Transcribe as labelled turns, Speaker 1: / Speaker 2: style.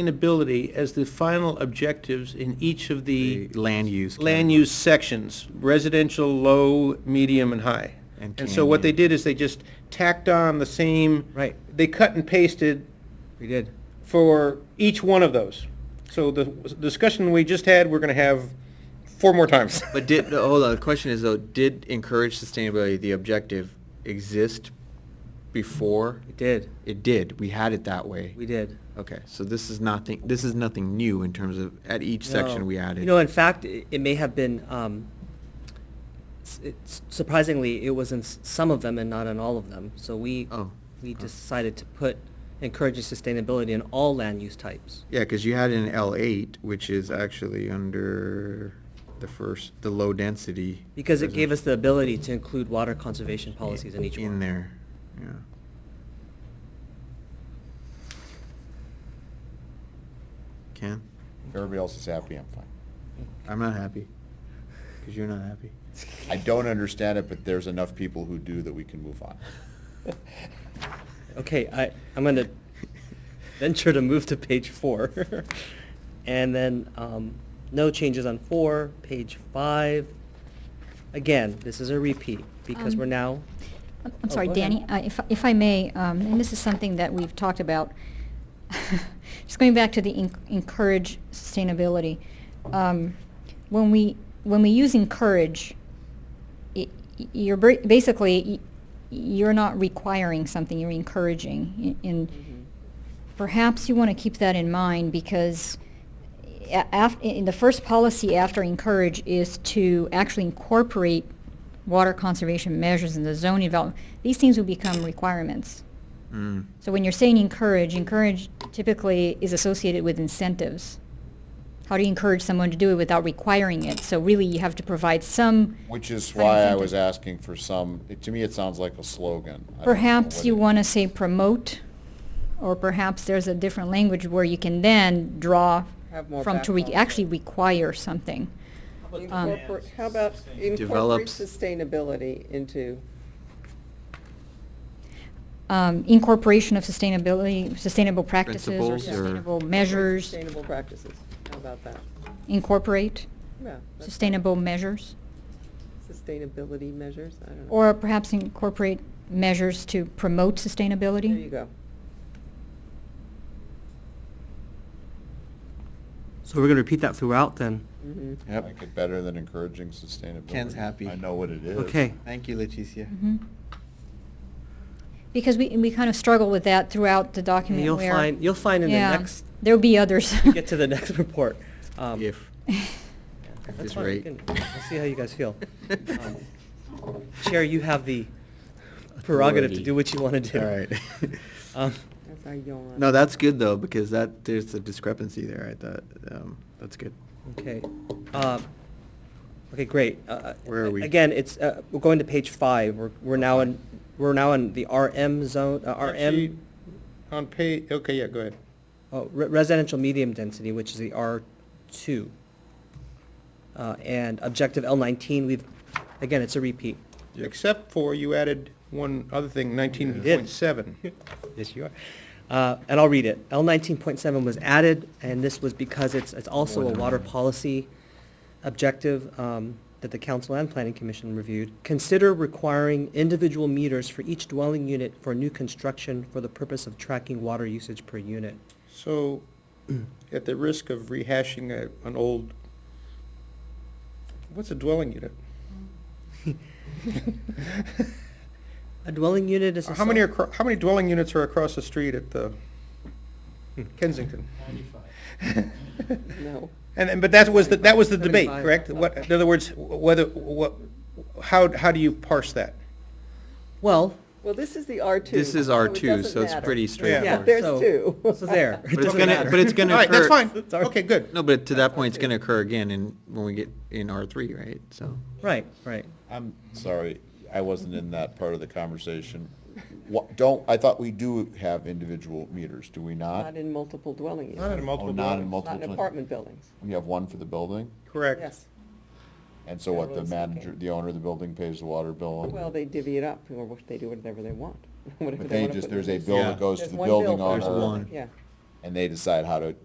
Speaker 1: sustainability as the final objectives in each of the
Speaker 2: The land use.
Speaker 1: land use sections, residential, low, medium, and high.
Speaker 2: And
Speaker 1: And so what they
Speaker 2: canyon.
Speaker 1: did is they just tacked on the same.
Speaker 2: Right.
Speaker 1: They cut and pasted
Speaker 2: We did.
Speaker 1: for each one of those. So the discussion we just had, we're gonna have four more times.
Speaker 2: But did, no, hold on, the question is though, did encourage sustainability, the objective, exist before?
Speaker 3: We did,
Speaker 2: It did, we had it that way.
Speaker 3: we did.
Speaker 2: Okay, so this is nothing, this is nothing new in terms of, at each section
Speaker 3: No.
Speaker 2: we added.
Speaker 3: You know, in fact, i- it may have been, um, s- it's- surprisingly, it was in s- some of them and not in all of them. So we,
Speaker 2: Oh,
Speaker 3: we
Speaker 2: oh.
Speaker 3: decided to put encouraging sustainability in all land use types.
Speaker 2: Yeah, because you had an L eight, which is actually under the first, the low density.
Speaker 3: Because it gave us the
Speaker 2: residential.
Speaker 3: ability to include water conservation policies in each one.
Speaker 2: In there, yeah. Ken,
Speaker 4: If everybody else is happy, I'm fine.
Speaker 2: I'm not happy, because you're not happy.
Speaker 4: I don't understand it, but there's enough people who do that we can move on.
Speaker 3: Okay, I, I'm gonna venture to move to page four. And then, um, no changes on four, page five. Again, this is a repeat, because
Speaker 5: Um,
Speaker 3: we're now,
Speaker 5: I'm- I'm
Speaker 3: Oh,
Speaker 5: sorry,
Speaker 3: go ahead.
Speaker 5: Danny, I- if, if I may, um, and this is something that we've talked about, just going back to the en- encourage sustainability. Um, When we, when we use encourage, i- i- you're br- basically, y- you're not requiring something, you're encouraging. I- And perhaps you want to keep that in mind because a- af- in the first policy after encourage is to actually incorporate water conservation measures in the zoning development. These things will become requirements.
Speaker 2: Mm.
Speaker 5: So when you're saying encourage, encourage typically is associated with incentives. How do you encourage someone to do it without requiring it? So really, you have to provide some.
Speaker 4: Which is
Speaker 5: kind of
Speaker 4: why I
Speaker 5: incentive.
Speaker 4: was asking for some, it- to me, it sounds like a slogan. I don't know
Speaker 5: Perhaps
Speaker 4: what
Speaker 5: you
Speaker 4: it-
Speaker 5: want to say promote, or perhaps there's a different language where you can then draw
Speaker 6: Have more
Speaker 5: from to re-
Speaker 6: backbone.
Speaker 5: actually require something. Um,
Speaker 6: Incorporate, how about incorporate
Speaker 2: Develops-
Speaker 6: sustainability into,
Speaker 5: Um, incorporation of sustainability, sustainable practices or
Speaker 2: Principles
Speaker 6: or-
Speaker 5: sustainable measures,
Speaker 6: sustainable practices? How about that?
Speaker 5: incorporate
Speaker 6: Yeah. that's-
Speaker 5: sustainable measures.
Speaker 6: Sustainability measures, I don't know.
Speaker 5: Or perhaps incorporate measures to promote sustainability?
Speaker 6: There you go.
Speaker 3: so we're gonna repeat that throughout then.
Speaker 6: Mhm.
Speaker 4: I like it better than encouraging sustainability.
Speaker 2: Ken's happy.
Speaker 4: I know what it is.
Speaker 3: Okay,
Speaker 2: Thank you, Leticia.
Speaker 5: Mhm. Because we, we kind of struggle with that throughout the document
Speaker 3: you'll
Speaker 5: where-
Speaker 3: find, you'll find in the
Speaker 5: Yeah,
Speaker 3: next,
Speaker 5: There'll be others.
Speaker 3: we get to the next report. um,
Speaker 2: If,
Speaker 3: that's
Speaker 2: at this
Speaker 3: fine,
Speaker 2: rate.
Speaker 3: you can- I'll see how you guys feel. Um, Chair, you have the prerogative to do what you wanna do.
Speaker 2: All right.
Speaker 3: Um,
Speaker 6: That's our yawn.
Speaker 2: No, that's good though, because that, there's a discrepancy there, I thought, um, that's good.
Speaker 3: Okay, um, okay, great. Uh,
Speaker 2: Where are we?
Speaker 3: Again, it's, uh, we're going to page five, we're, we're now in, we're now in the RM zone, uh,
Speaker 1: Actually,
Speaker 3: RM,
Speaker 1: On pay, okay, yeah, go ahead.
Speaker 3: oh, re- residential medium density, which is the R two. Uh, and objective L nineteen, we've, again, it's a repeat.
Speaker 2: Yep.
Speaker 1: Except for you added one other thing, nineteen
Speaker 3: did.
Speaker 1: point seven.
Speaker 3: Yes, you are. Uh, and I'll read it. L nineteen point seven was added, and this was because it's, it's also
Speaker 2: More
Speaker 3: a
Speaker 2: than
Speaker 3: water
Speaker 2: one.
Speaker 3: policy objective, um, that the council and planning commission reviewed. Consider requiring individual meters for each dwelling unit for new construction for the purpose of tracking water usage per unit.
Speaker 1: So, at the risk of rehashing a, an old, what's a dwelling unit?
Speaker 3: A dwelling unit is a.
Speaker 1: How many are,
Speaker 3: cell-
Speaker 1: acro- how many dwelling units are across the street at the Kensington?
Speaker 6: No.
Speaker 1: And, and, but that was, the- that was the debate,
Speaker 3: 75.
Speaker 1: correct? What, in other words, whether, what, how, how do you parse that?
Speaker 3: Well,
Speaker 6: Well, this is the R2.
Speaker 2: This is
Speaker 6: it
Speaker 2: R two,
Speaker 6: doesn't
Speaker 2: so it's
Speaker 6: matter.
Speaker 2: pretty
Speaker 3: yeah,
Speaker 2: straightforward.
Speaker 6: There's
Speaker 3: so-
Speaker 6: two.
Speaker 3: So there, it
Speaker 2: But it's
Speaker 3: doesn't
Speaker 2: gonna,
Speaker 3: matter.
Speaker 2: but it's gonna
Speaker 1: All
Speaker 2: occur.
Speaker 1: right, that's fine. Okay, good.
Speaker 2: No, but to that point, it's gonna occur again in, when we get in R three, right? So,
Speaker 3: Right, right.
Speaker 4: I'm sorry, I wasn't in that part of the conversation. What, don't, I thought we do have individual meters, do we not?
Speaker 6: Not in multiple dwelling units.
Speaker 1: Not in multiple
Speaker 4: Oh, not in
Speaker 1: dwellings.
Speaker 4: multiple.
Speaker 6: Not in
Speaker 4: dwelling-
Speaker 6: apartment buildings.
Speaker 4: We have one for the building,
Speaker 1: Correct.
Speaker 6: Yes.
Speaker 4: and so what, the
Speaker 6: Everyone's
Speaker 4: manager,
Speaker 6: okay.
Speaker 4: the owner of the building pays the water bill? and-
Speaker 6: Well, they divvy it up, or what- they do whatever they want, whatever
Speaker 4: But
Speaker 6: they
Speaker 4: they
Speaker 6: want to
Speaker 4: just,
Speaker 6: put.
Speaker 4: there's a
Speaker 6: in.
Speaker 4: bill
Speaker 2: Yeah.
Speaker 4: that goes to
Speaker 6: There's
Speaker 4: the
Speaker 6: one
Speaker 4: building
Speaker 6: bill for
Speaker 4: owner.
Speaker 2: There's
Speaker 6: everything.
Speaker 2: one.
Speaker 6: Yeah.
Speaker 4: and they decide how to